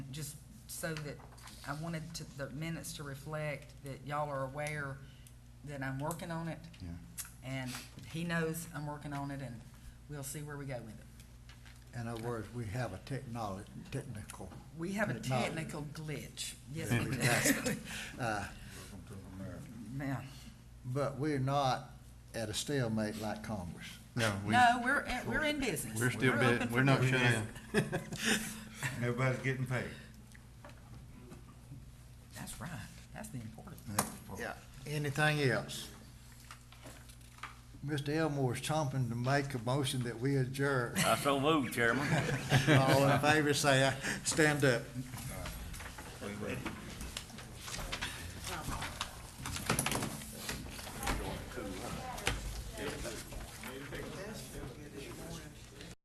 so that I wanted to, the minutes to reflect that y'all are aware that I'm working on it. Yeah. And he knows I'm working on it and we'll see where we go with it. In other words, we have a technology, technical, We have a Technology. technical glitch. Yes, Yeah, we do. exactly. uh, Man. but we're not at a stalemate like Congress. No, we, No, we're, in- we're in business. we're still, bit- open we're for not business. shut down. Everybody's getting paid. That's right. That's the important. Yeah. Anything else? Mr. Elmore's chomping to make a motion that we adjourn. I so moved, Chairman. All in favor, say aye. Stand up. Wait, wait.